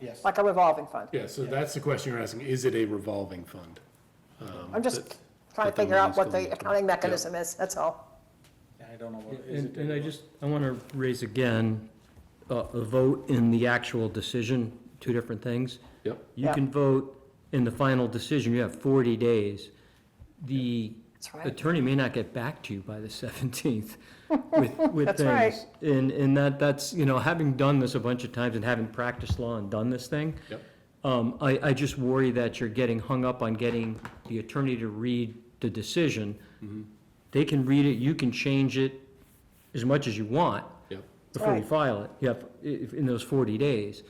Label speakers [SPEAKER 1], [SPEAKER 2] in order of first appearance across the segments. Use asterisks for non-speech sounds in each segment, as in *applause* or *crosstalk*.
[SPEAKER 1] Yes.
[SPEAKER 2] Like a revolving fund.
[SPEAKER 3] Yeah, so that's the question you're asking, is it a revolving fund? Um,
[SPEAKER 2] I'm just
[SPEAKER 3] that-
[SPEAKER 2] trying
[SPEAKER 3] that
[SPEAKER 2] to
[SPEAKER 3] the
[SPEAKER 2] figure out
[SPEAKER 3] money's
[SPEAKER 2] what
[SPEAKER 3] going
[SPEAKER 2] the
[SPEAKER 3] to.
[SPEAKER 2] accounting
[SPEAKER 3] Yeah.
[SPEAKER 2] mechanism is, that's all.
[SPEAKER 1] Yeah, I don't know what is
[SPEAKER 4] And,
[SPEAKER 1] it.
[SPEAKER 4] and I just, I want to raise again, uh, a vote in the actual decision, two different things.
[SPEAKER 3] Yep,
[SPEAKER 4] You can vote in the final decision, you have 40 days. The
[SPEAKER 2] That's right.
[SPEAKER 4] attorney may not get back to you by the
[SPEAKER 2] *laughs*
[SPEAKER 4] *laughs* 17th with, with things.
[SPEAKER 2] That's right.
[SPEAKER 4] And, and that, that's, you know, having done this a bunch of times and having practiced law and done this thing,
[SPEAKER 3] yep,
[SPEAKER 4] um, I, I just worry that you're getting hung up on getting the attorney to read the decision. They can read it, you can change it as much as you want
[SPEAKER 3] yep,
[SPEAKER 4] before you
[SPEAKER 2] Right.
[SPEAKER 4] file it, you have, if, in those forty days.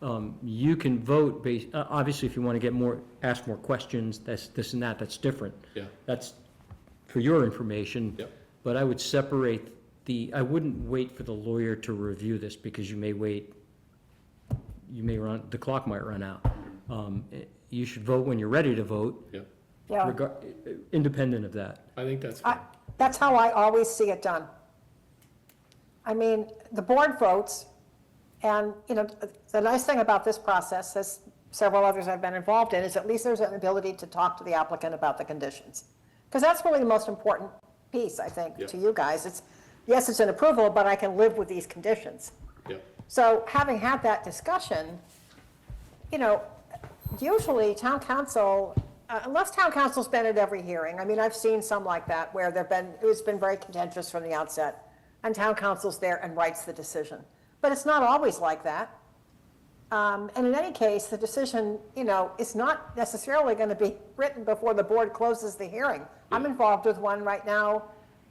[SPEAKER 4] Um, you can vote based, uh, obviously, if you wanna get more, ask more questions, that's, this and that, that's different.
[SPEAKER 3] yeah,
[SPEAKER 4] That's for your information.
[SPEAKER 3] Yep.
[SPEAKER 4] But I would separate the, I wouldn't wait for the lawyer to review this, because you may wait, you may run, the clock might run out. Um, eh, you should vote when you're ready to vote,
[SPEAKER 3] yep.
[SPEAKER 2] Yeah,
[SPEAKER 4] regar- eh, eh, independent of that.
[SPEAKER 3] I think that's
[SPEAKER 2] I,
[SPEAKER 3] fine.
[SPEAKER 2] that's how I always see it done. I mean, the board votes, and, you know, the nice thing about this process, as several others I've been involved in, is at least there's an ability to talk to the applicant about the conditions. Because that's really the most important piece, I think, to
[SPEAKER 3] Yeah.
[SPEAKER 2] you guys. It's, yes, it's an approval, but I can live with these conditions.
[SPEAKER 3] Yep,
[SPEAKER 2] So having had that discussion, you know, usually town council, uh, unless town council's been at every hearing, I mean, I've seen some like that where there've been, it's been very contentious from the outset, and town council's there and writes the decision. But it's not always like that. Um, And in any case, the decision, you know, is not necessarily going to be *laughs* written before the board closes the hearing. I'm involved with one right now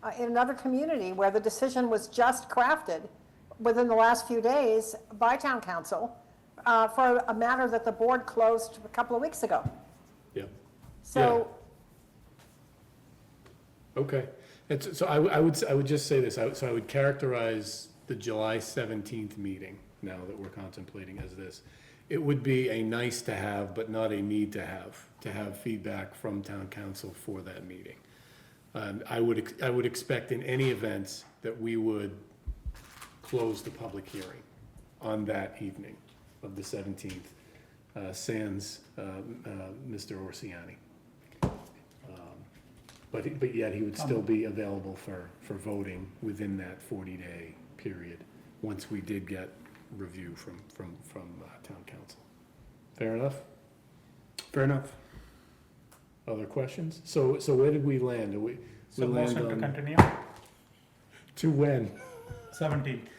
[SPEAKER 2] uh, in another community where the decision was just crafted within the last few days by town council uh, for a matter that the board closed a couple of weeks ago.
[SPEAKER 3] yep,
[SPEAKER 2] So,
[SPEAKER 3] okay. And so- so I, would- I would, s- I would just say this, I would- so I would characterize the July seventeenth meeting, now that we're contemplating as this. It would be a nice to have, but not a need to have, to have feedback from town council for that meeting. Um, I would, ex- I would expect in any event that we would close the public hearing on that evening of the 17th, uh, sans uh, m- uh, Mr. Orsiani. Um, But, he- but yet he would still be available for, for voting within that 40-day period, once we did get review from, from, from uh, town council. Fair enough? Fair enough. Other questions? So, so where did we land? Are we, we
[SPEAKER 1] So
[SPEAKER 3] land
[SPEAKER 1] motion to
[SPEAKER 3] on,
[SPEAKER 1] continue,
[SPEAKER 3] to when?
[SPEAKER 1] seventeenth.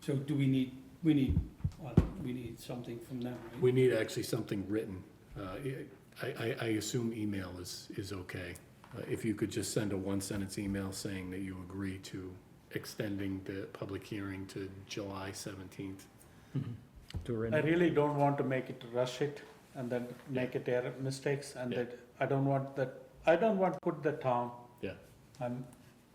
[SPEAKER 5] So do we need, we need, uh, we need something from them, right?
[SPEAKER 3] We need actually something written. Uh, I, I, I assume email is, is okay. Uh, If you could just send a one-sentence email saying that you agree to extending the public hearing to July seventeenth.
[SPEAKER 4] Do it right
[SPEAKER 1] I
[SPEAKER 4] now.
[SPEAKER 1] really don't want to make it rush it and then make it error mistakes and
[SPEAKER 3] Yeah.
[SPEAKER 1] that, I don't want that, I don't want to put the town,
[SPEAKER 3] Yeah,
[SPEAKER 1] I'm,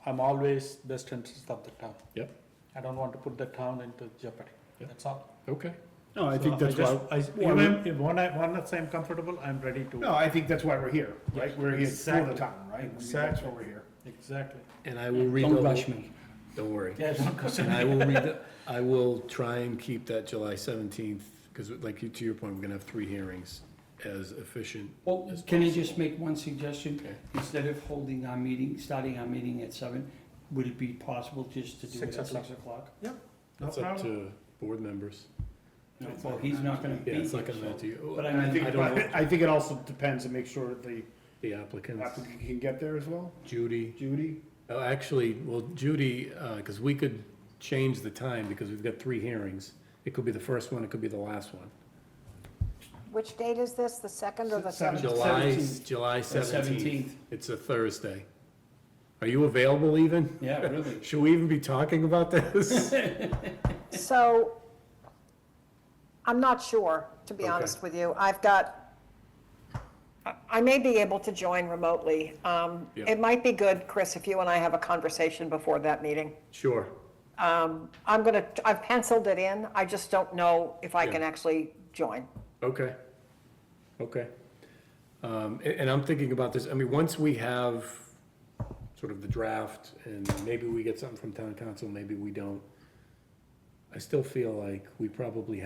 [SPEAKER 1] I'm always best interest of the town.
[SPEAKER 3] yep,
[SPEAKER 1] I don't want to put the town into jeopardy,
[SPEAKER 3] Yeah.
[SPEAKER 1] that's all.
[SPEAKER 3] okay.
[SPEAKER 6] No, I
[SPEAKER 1] So
[SPEAKER 6] think that's
[SPEAKER 1] just-
[SPEAKER 6] why,
[SPEAKER 1] I,
[SPEAKER 6] why we-
[SPEAKER 1] even if, when I, once I'm comfortable, I'm ready to.
[SPEAKER 6] no, I think that's why we're here, right? We're here for the
[SPEAKER 1] Exactly.
[SPEAKER 6] town, right? I mean, That's
[SPEAKER 1] Exactly.
[SPEAKER 6] why we're here.
[SPEAKER 1] Exactly.
[SPEAKER 3] And I will read.
[SPEAKER 5] Don't
[SPEAKER 3] over-
[SPEAKER 5] rush me.
[SPEAKER 3] Don't worry.
[SPEAKER 1] Yeah, don't go-
[SPEAKER 3] And I will read, the- I will try and keep that July seventeenth, because like you, to your point, we're gonna have three hearings as efficient.
[SPEAKER 5] Well,
[SPEAKER 3] as
[SPEAKER 5] can I just make one suggestion?
[SPEAKER 3] Okay.
[SPEAKER 5] Instead of holding our meeting, starting our meeting at seven, would it be possible just to do it
[SPEAKER 1] Six
[SPEAKER 5] at
[SPEAKER 1] o'clock.
[SPEAKER 5] six o'clock?
[SPEAKER 1] No
[SPEAKER 3] It's up
[SPEAKER 1] problem.
[SPEAKER 3] to board members.
[SPEAKER 5] No, well, he's not gonna be
[SPEAKER 3] Yeah,
[SPEAKER 5] here,
[SPEAKER 3] it's not
[SPEAKER 5] so.
[SPEAKER 3] gonna matter to you.
[SPEAKER 5] But I
[SPEAKER 6] And I
[SPEAKER 5] mean,
[SPEAKER 6] think,
[SPEAKER 3] I don't
[SPEAKER 6] but I think it also depends to make sure that the
[SPEAKER 3] The applicants,
[SPEAKER 6] applicant can get there as well.
[SPEAKER 3] Judy,
[SPEAKER 6] Judy?
[SPEAKER 3] oh, actually, well, Judy, because we could change the time, because we've got three hearings. It could be the first one, it could be the last one.
[SPEAKER 2] which date is this, the second or the
[SPEAKER 6] Seven.
[SPEAKER 2] third?
[SPEAKER 6] Seventh.
[SPEAKER 3] July,
[SPEAKER 6] 17th.
[SPEAKER 3] July seventeenth.
[SPEAKER 5] seventeenth.
[SPEAKER 3] It's a Thursday. Are you available even?
[SPEAKER 5] Yeah, really.
[SPEAKER 3] Should we even be talking about this? *laughs*
[SPEAKER 2] So, I'm not sure, to be
[SPEAKER 3] Okay.
[SPEAKER 2] honest with you. I've got, I- I may be able to join remotely. Um,
[SPEAKER 3] Yeah.
[SPEAKER 2] It might be good, Chris, if you and I have a conversation before that meeting.
[SPEAKER 3] Sure.
[SPEAKER 2] I'm gonna, I've penciled it in, I just don't know if I
[SPEAKER 3] Yeah.
[SPEAKER 2] can actually join.
[SPEAKER 3] Okay, okay. Um, a- and I'm thinking about this, I mean, once we have sort of the draft, and maybe we get something from town council, maybe we don't. I still feel like we probably